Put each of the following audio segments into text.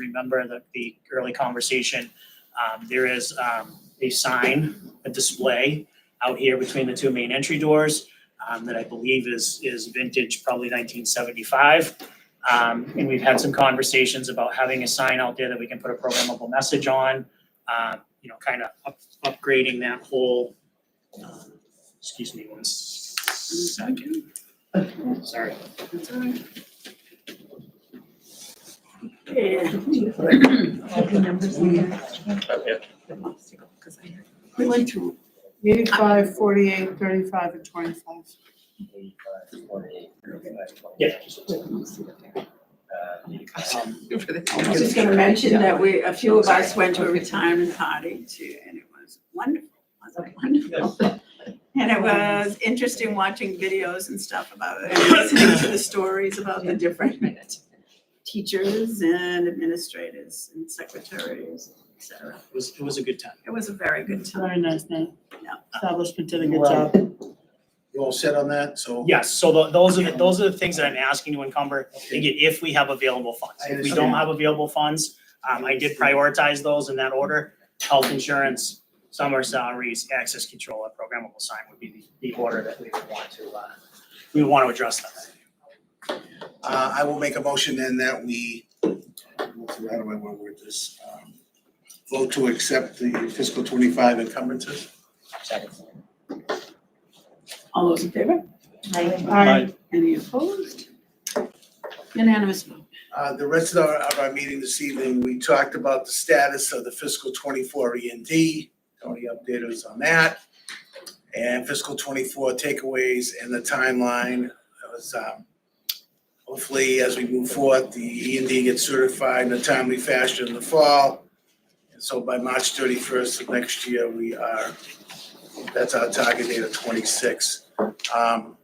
remember the, the early conversation, um, there is, um, a sign, a display out here between the two main entry doors, um, that I believe is, is vintage, probably nineteen seventy-five. Um, and we've had some conversations about having a sign out there that we can put a programmable message on, uh, you know, kind of up, upgrading that whole, um, excuse me one second. Sorry. We went through eighty-five, forty-eight, thirty-five, and twenty-five. Yeah. I was just gonna mention that we, a few of us went to a retirement party too, and it was wonderful, wasn't it wonderful? And it was interesting watching videos and stuff about it, and listening to the stories about the different teachers and administrators and secretaries, et cetera. It was, it was a good time. It was a very good time. Very nice name. Yeah. Establishment did a good job. You all set on that, so? Yes, so tho- those are, the those are the things that I'm asking to encumber, again, if we have available funds. If we don't understand. have available funds, um, I did prioritize those in that order. Health insurance, summer salaries, access control, and programmable sign would be the, the order that we would want to, uh, we would want to address that. Uh, I will make a motion then that we, how do I wanna word this? Um, Vote to accept the fiscal twenty-five encumbrances. All those in favor? Aye. Any opposed? Unanimous vote. Uh, the rest of our, of our meeting this evening, we talked about the status of the fiscal twenty-four E and D. Tony updated us on that. And fiscal twenty-four takeaways and the timeline. That was, um, hopefully, as we move forward, the E and D gets certified in a timely fashion in the fall. And so by March thirty-first of next year, we are, that's our target date of twenty-six. Um,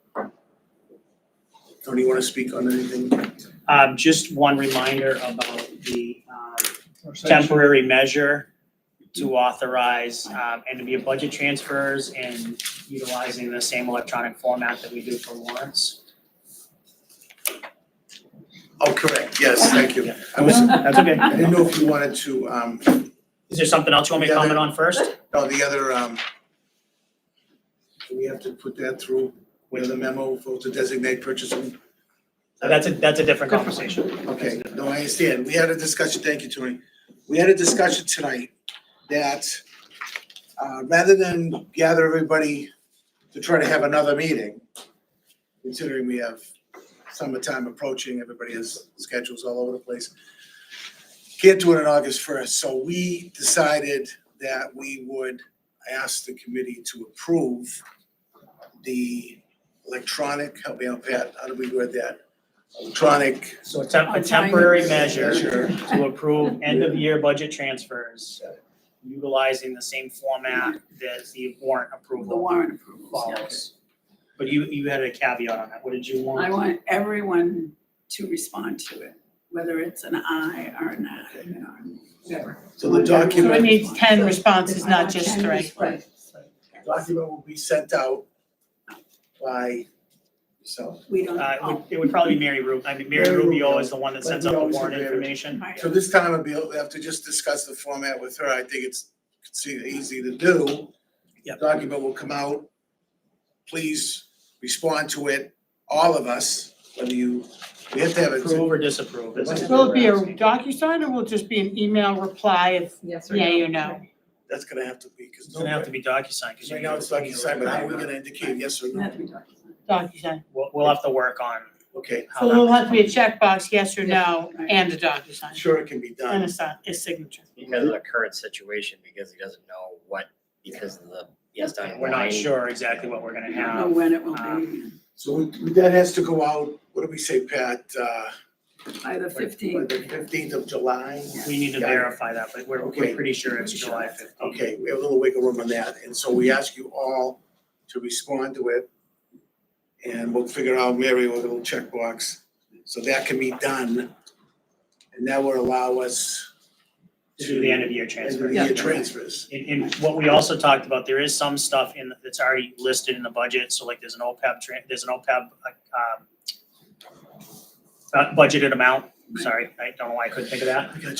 Tony, you wanna speak on anything? Um, just one reminder about the, um, temporary measure to authorize, um, and to be a budget transfers and utilizing the same electronic format that we do for warrants. Oh, correct, yes, thank you. I was, That's okay. I didn't know if you wanted to, um, Is there something else you want me to Yeah, comment there- on first? no, the other, um, do we have to put that through, with the memo, vote to designate purchasing? That's a, that's a different conversation. Okay, no, I understand, we had a discussion, thank you, Tony. We had a discussion tonight that, uh, rather than gather everybody to try to have another meeting, considering we have summertime approaching, everybody has schedules all over the place, can't do it on August first, so we decided that we would ask the committee to approve the electronic, help me out, Pat, how do we word that? Electronic So a temp, a On time. temporary measure Sure. to approve end of year budget transfers utilizing the same format that the warrant The approval warrant approvals, yeah. follows. But you, you had a caveat on that. What did you I want? want everyone to respond to it, whether it's an aye or an aye, you know, whatever. So the So we document, need ten responses, not just three. Right. document will be sent out by, so. We don't, Uh, it would, oh, it would probably be Mary Ru, I mean, Mary Mary Rubio Rubio. is the one that But sends we out the always warrant agree with- information. right. So this time, I'll be, we'll have to just discuss the format with her, I think it's, it's easy to do. Yep. Document will come out, please respond to it, all of us, whether you, we have to have Approve it, or disapprove is it? Will it be a DocuSign or will it just be an email reply if Yes yeah you know? that's gonna have to be, because It's gonna have to be DocuSign because you. Right now, it's like you said, but how are we gonna indicate yes or no? that's what we're talking DocuSign. We'll, we'll have to work on Okay, how So that. there'll have to be a checkbox, yes or no, Yeah. and a DocuSign, sure it can be and a done, sign, a signature. because of the current situation, because he doesn't know what, because of the, he has to unwind. We're not sure exactly what we're gonna about. I don't have. know when it will be, so we- that has to go out, what do we say, Pat, uh? by the By fifteenth. the fifteenth of July? We need to Got it. verify that, but we're, we're Okay. pretty sure it's July fifteenth. Okay, we have a little wiggle room on that, and so we ask you all to respond to it. And we'll figure out, Mary, with a little checkbox, so that can be done. And that will allow us To to. do the end of year transfer. End of year transfers. And, and what we also talked about, there is some stuff in, that's already listed in the budget, so like there's an OPEB, tran- there's an OPEB, like, um, uh, budgeted amount sorry, I don't know why I couldn't think of that. I got you.